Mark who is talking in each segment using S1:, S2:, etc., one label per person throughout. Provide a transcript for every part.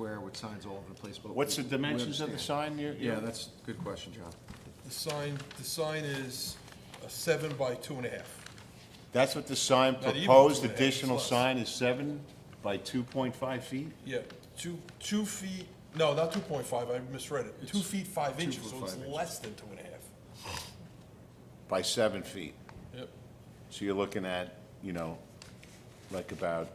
S1: with signs all over the place, but.
S2: What's the
S1: we- we
S2: dimensions of the
S1: understand.
S2: sign you're?
S1: Yeah, that's a good question, John.
S3: The sign, the sign is a seven by two and a half.
S2: That's what the sign
S3: even
S2: proposed,
S3: two and a half,
S2: additional
S3: it's less.
S2: sign is seven by two point five feet?
S3: Yeah, two, two feet, no, not two point five, I misread it. Two feet, five
S1: two
S3: inches,
S1: foot,
S3: so it's
S1: five inches.
S3: less than two and a half.
S2: By seven feet.
S3: Yep.
S2: So you're looking at, you know, like about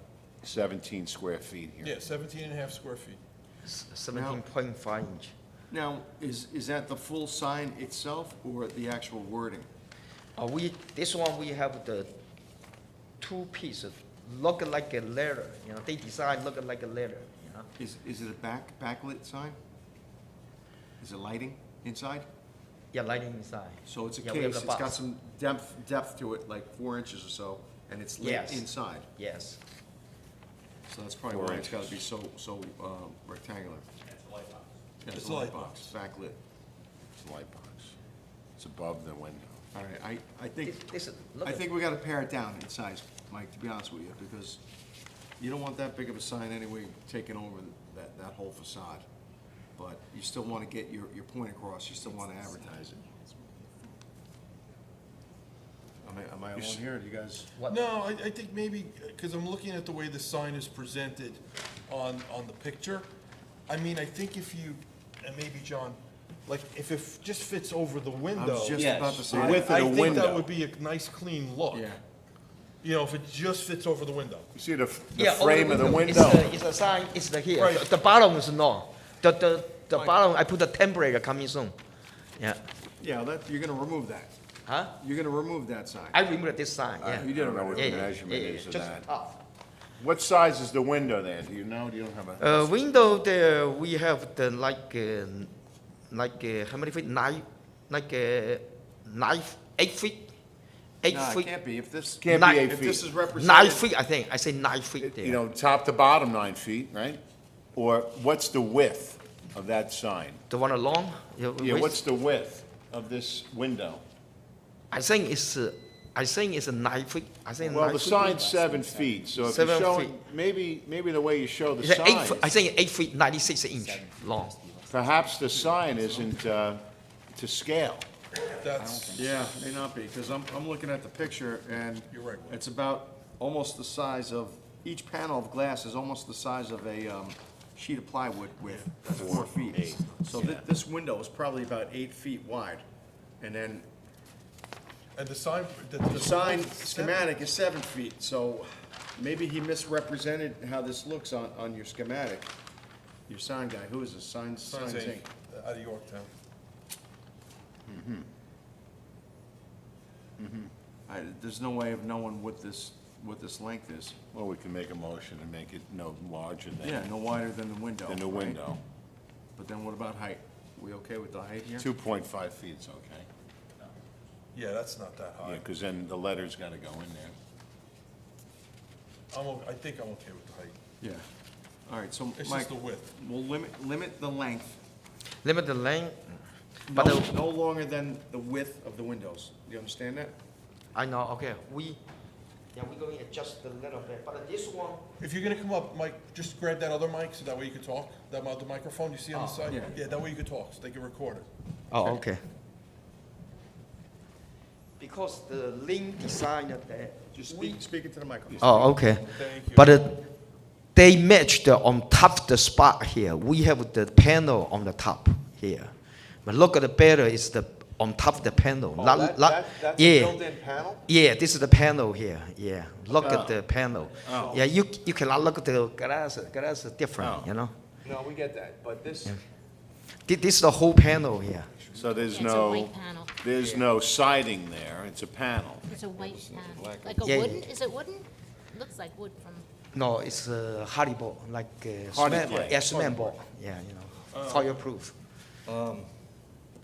S2: seventeen square feet here.
S3: Yeah, seventeen and a half square feet.
S4: Seventeen point five inch.
S1: Now, is, is that the full sign itself or the actual wording?
S4: Uh, we, this one, we have the two pieces, look like a letter, you know, they design look like a letter, you know.
S1: Is, is it a back, backlit sign? Is it lighting inside?
S4: Yeah, lighting inside.
S1: So it's a
S4: Yeah, we have
S1: case,
S4: the
S1: it's got
S4: box.
S1: some depth, depth to it, like four inches or so, and it's lit
S4: Yes.
S1: inside.
S4: Yes,
S1: So that's probably
S2: Four
S1: why it's gotta be so, so um, rectangular. Yeah,
S3: It's a light box.
S1: Backlit.
S2: It's a light box. It's above the window.
S1: All right, I, I think,
S4: this, this, is- look
S1: I
S4: at,
S1: think we gotta pare it down in size, Mike, to be honest with you, because you don't want that big of a sign anyway taking over that, that whole facade. But you still wanna get your, your point across, you still wanna advertise it. Am I, am I alone here, do you guys?
S4: What-
S3: No, I, I think maybe, because I'm looking at the way the sign is presented on, on the picture. I mean, I think if you, and maybe John, like, if it just fits over the
S1: I
S3: window.
S1: was just
S2: Yes.
S1: about to say
S2: The
S3: I-
S1: that.
S2: width of the
S3: I think that
S2: window.
S3: would be a nice, clean look.
S1: Yeah,
S3: You know, if it just fits over the window.
S2: You see the, f- the
S4: yeah, over
S2: frame of the
S4: It's uh,
S2: window?
S4: a- It's a sign, it's the here,
S3: Right.
S4: The- the bottom is no, the, the, the
S3: Right.
S4: bottom, I put the temporary coming soon, yeah,
S1: yeah, that, you're gonna remove that,
S4: huh?
S1: you're gonna remove that sign.
S4: I remember this sign, yeah.
S2: Uh, You didn't know what
S4: Yeah,
S2: the
S4: yeah,
S2: measurement
S4: yeah, yeah,
S2: is of
S4: just
S2: that.
S4: top.
S2: What size is the window there? Do you know? Do you don't have a?
S4: Uh, window there, we have the like, uh, like, uh, how many feet, nine, like, uh, nine, eight feet? Eight
S1: No, it
S4: feet,
S1: can't be, if this,
S2: Can't
S4: nine-
S2: be eight
S1: if this is
S2: feet.
S4: nine
S1: represented,
S4: feet, I think, I say nine feet
S2: You
S4: there.
S2: know, top to bottom, nine feet, right? Or what's the width of that sign?
S4: The one along? your
S2: Yeah,
S4: waist?
S2: what's the width of this window?
S4: I think it's, uh, I think it's a nine feet, I think nine feet.
S2: Well, the sign's seven feet, so if you're
S4: Seven
S2: showing,
S4: feet.
S2: maybe, maybe the way you show the
S4: It's a eight, foot- I
S2: sign,
S4: think eight feet, ninety-six inch long.
S2: perhaps the sign isn't, uh, to scale.
S3: That's,
S1: yeah, may not be, because I'm, I'm looking at the picture, and
S3: You're right, Will.
S1: it's about almost the size of, each panel of glass is almost the size of a um, sheet of plywood with that's four feet. So thi- this window is probably about eight feet wide, and then
S3: and the sign.
S1: the sign schematic is seven feet, so maybe he misrepresented how this looks on, on your schematic. Your sign guy, who is this, Signs, Signs
S3: Signs
S1: Inc.?
S3: out of Yorktown.
S1: I- There's no way of knowing what this, what this length is.
S2: Well, we can make a motion and make it no larger
S1: Yeah,
S2: than,
S1: no wider than the window.
S2: than the
S1: right?
S2: window.
S1: But then what about height? We okay with the height here?
S2: Two point five feet is okay.
S3: Yeah, that's not that
S2: Yeah,
S3: high.
S2: because then the letter's gotta go in there.
S3: I'm, o- I think I'm okay with the height.
S1: Yeah. All right, so
S3: It's
S1: Mike,
S3: just the width.
S1: we'll limit, limit the length,
S4: Limit the length,
S1: no,
S4: but the-
S1: no longer than the width of the windows. Do you understand that?
S4: I know, okay, we, yeah, we're going to adjust a little bit, but this one,
S3: If you're gonna come up, Mike, just grab that other mic, so that way you can talk, that mi- the microphone you see on the side?
S1: Ah, yeah.
S3: Yeah, that way you can talk, so they can record it.
S4: Oh, okay. Because the link designer there.
S1: Just
S4: we-
S1: speak, speak into the microphone.
S4: Oh, okay.
S3: Thank you.
S4: But uh, they matched on top of the spot here. We have the panel on the top here. But look at the better is the, on top of the panel,
S3: Oh,
S4: not, not- yeah.
S1: panel?
S4: Yeah, this is the panel here, yeah. Look
S3: Ah.
S4: at the panel.
S3: Oh.
S4: Yeah, you, you cannot look at the glass, glass is different, you know?
S1: No, we get that, but this,
S4: Thi- This is the whole panel here.
S2: So there's
S5: Yeah, it's a
S2: no,
S5: white panel.
S2: there's no siding there, it's a panel.
S5: It's a white panel, like a
S4: Yeah, yeah.
S5: wooden, is it wooden? Looks like wood from,
S4: No, it's uh, hardball, like uh,
S2: Hardy,
S4: cement,
S2: yeah.
S4: yeah, cement ball, yeah, you know, fireproof.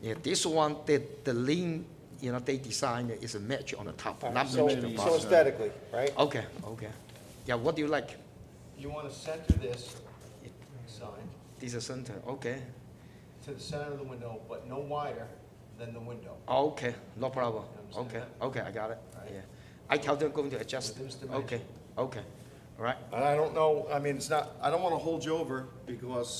S4: Yeah, this one, the, the link, you know, they designed is a match on the top, not match the
S1: Oh, so
S4: bottom.
S1: aesthetically, right?
S4: Okay, okay. Yeah, what do you like?
S1: You want to center this sign
S4: This is center, okay,
S1: to the center of the window, but no wider than the window.
S4: Oh, okay, no problem,
S1: understand
S4: okay, okay, I got it, yeah. I tell them going to adjust,
S1: Reduce dimension.
S4: okay, okay, all right.
S1: And I don't know, I mean, it's not, I don't want to hold you over because